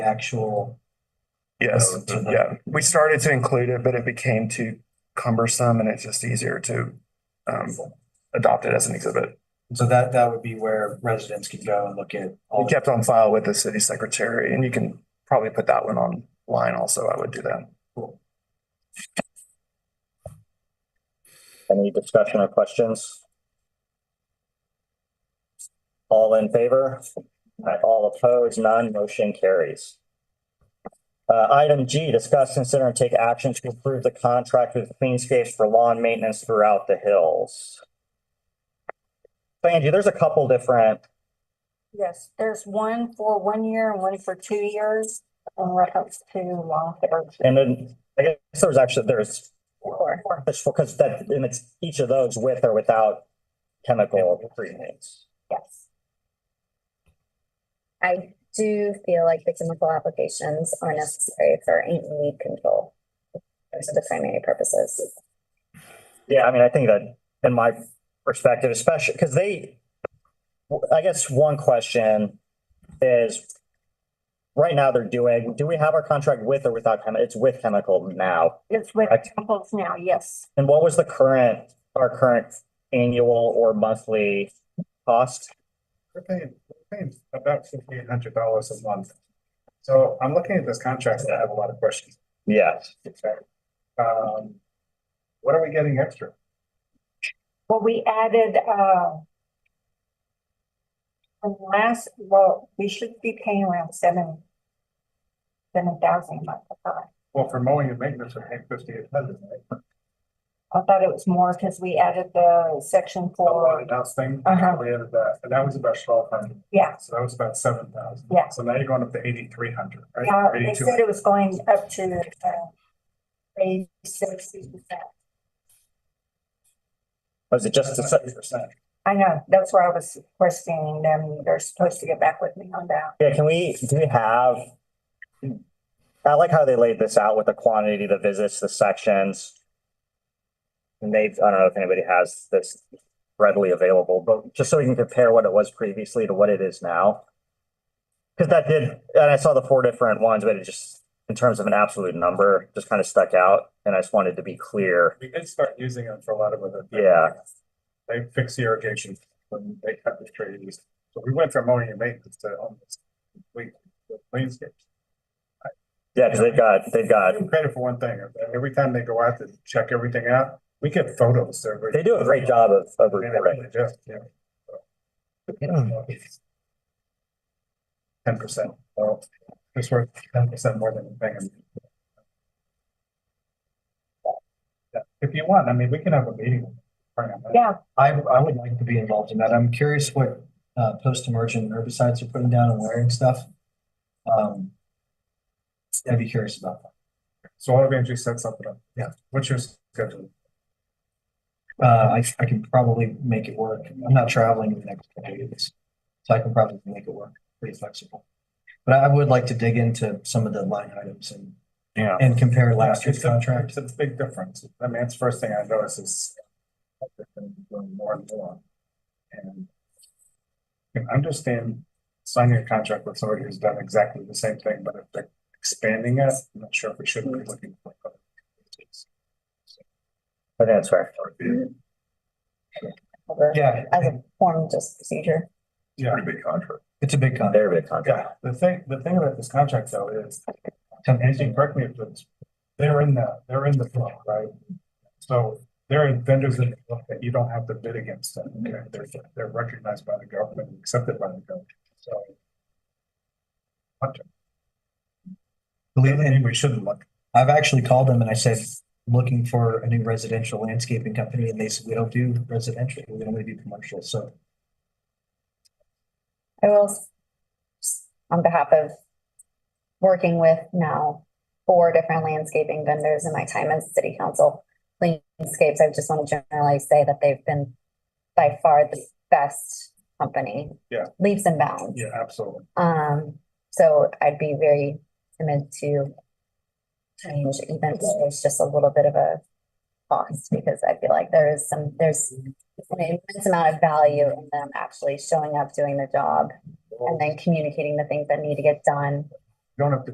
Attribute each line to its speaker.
Speaker 1: actual.
Speaker 2: Yes,
Speaker 1: Oh, okay.
Speaker 2: yeah. uh, We started to include it, but it became too cumbersome and it's just easier to um adopt it as an exhibit.
Speaker 1: So that, that would be where residents can go and look at all
Speaker 2: We
Speaker 1: the
Speaker 2: kept on file with the city secretary and you can probably put that one online also. I would do that.
Speaker 3: Any discussion or questions? All in favor? Aye. All opposed? None. Motion carries. Uh, item G, discuss, consider, and take action to approve the contract with Cleanscapes for lawn maintenance throughout the hills. So Angie, there's a couple different,
Speaker 4: Yes, there's one for one year and one for two years in reference to law
Speaker 3: and then I guess there's actually, there's,
Speaker 4: enforcement.
Speaker 3: because that, and it's each of those with or without chemical treatments.
Speaker 5: Yes. I do feel like the chemical applications are necessary for ant and weed control. Those are the primary purposes.
Speaker 3: Yeah, I mean, I think that in my perspective, especially because they, I guess one question is right now they're doing, do we have our contract with or without chemical? It's with chemical now.
Speaker 4: It's with
Speaker 3: Correct.
Speaker 4: temples now, yes.
Speaker 3: And what was the current, our current annual or monthly cost?
Speaker 6: We're paying, we're paying about fifteen hundred dollars a month. So I'm looking at this contract, and I have a lot of questions.
Speaker 3: Yes.
Speaker 6: Um, what are we getting extra?
Speaker 4: Well, we added, uh, the last, well, we should be paying around seven, seven thousand a month. I thought.
Speaker 6: Well, for mowing and maintenance, we're paying fifty-eight hundred, right?
Speaker 4: I thought it was more because we added the section
Speaker 6: The one
Speaker 4: for,
Speaker 6: and done thing,
Speaker 4: Uh-huh.
Speaker 6: we added that, and that was about twelve hundred,
Speaker 4: yeah.
Speaker 6: so that was about seven thousand.
Speaker 4: Yeah.
Speaker 6: So now you're going up to eighty-three hundred,
Speaker 4: Uh,
Speaker 6: right?
Speaker 4: they
Speaker 6: Eighty-two
Speaker 4: said
Speaker 6: hundred.
Speaker 4: it was going up to, uh, eighty six percent.
Speaker 3: Was it just,
Speaker 6: That's
Speaker 3: the
Speaker 6: not eight percent.
Speaker 4: I know, that's where I was questioning them, they're supposed to get back with me on that.
Speaker 3: yeah, can we, do we have? I like how they laid this out with the quantity, the visits, the sections. And they've, I don't know if anybody has this readily available, but just so we can compare what it was previously to what it is now. Cause that did, and I saw the four different ones, but it just, in terms of an absolute number, just kind of stuck out and I just wanted to be clear.
Speaker 6: We did start using them for a lot of other. things.
Speaker 3: Yeah.
Speaker 6: They fix irrigation when they cut the trees. So we went from mowing and maintenance to almost complete landscape.
Speaker 3: Yeah, cause they've got, they've got,
Speaker 6: Give them credit for one thing. Every time they go out to check everything out, we get photos. They're
Speaker 3: they do a great job of, of
Speaker 6: They
Speaker 3: reporting.
Speaker 6: really do, yeah. Ten percent. Well, it's worth ten percent more than anything. Yeah, If you want, I mean, we can have a meeting.
Speaker 4: Yeah,
Speaker 1: I, I would like to be involved in that. I'm curious what, uh, post-emergent herbicides are putting down and wearing stuff. Um, I'd be curious about
Speaker 6: So I'll have Andrew set something up.
Speaker 1: Yeah.
Speaker 6: What's your schedule?
Speaker 1: that. Uh, I, I can probably make it work. I'm not traveling in the next couple of weeks. So I can probably make it work, pretty flexible. But I would like to dig into some of the line items and,
Speaker 3: Yeah.
Speaker 1: and compare last year's
Speaker 6: It's a-
Speaker 1: contract.
Speaker 6: It's a big difference. I mean, it's the first thing I notice is they're gonna be doing more and more. And I can understand signing a contract with somebody who's done exactly the same thing, but if they're expanding it, I'm not sure if we should be looking for. other agencies.
Speaker 3: I think that's fair.
Speaker 5: over-
Speaker 1: Yeah,
Speaker 5: As a form, just procedure.
Speaker 6: Yeah, big contract.
Speaker 1: it's a big contract.
Speaker 3: They're a big contract.
Speaker 6: Yeah, the thing, the thing about this contract though is, and you correct me if it's, they're in the, they're in the flow, right? So there are vendors in the flow that you don't have to bid against them. okay? They're, they're recognized by the government, and accepted by the government, so.
Speaker 1: Believe me,
Speaker 6: And we shouldn't look.
Speaker 1: I've actually called them and I said, looking for a new residential landscaping company, and they said, we don't do residential, we only do commercial, so.
Speaker 5: I will, s- on behalf of working with now four different landscaping vendors in my time as city council, Cleanscapes, I just want to generally say that they've been by far the best company.
Speaker 6: Yeah.
Speaker 5: Leaps and bounds.
Speaker 6: Yeah, absolutely.
Speaker 5: Um, so I'd be very timid to change even if there's just a little bit of a cost because I feel like there is some, there's an immense amount of value in them actually showing up, doing the job and then communicating the things that need to get done
Speaker 6: don't have to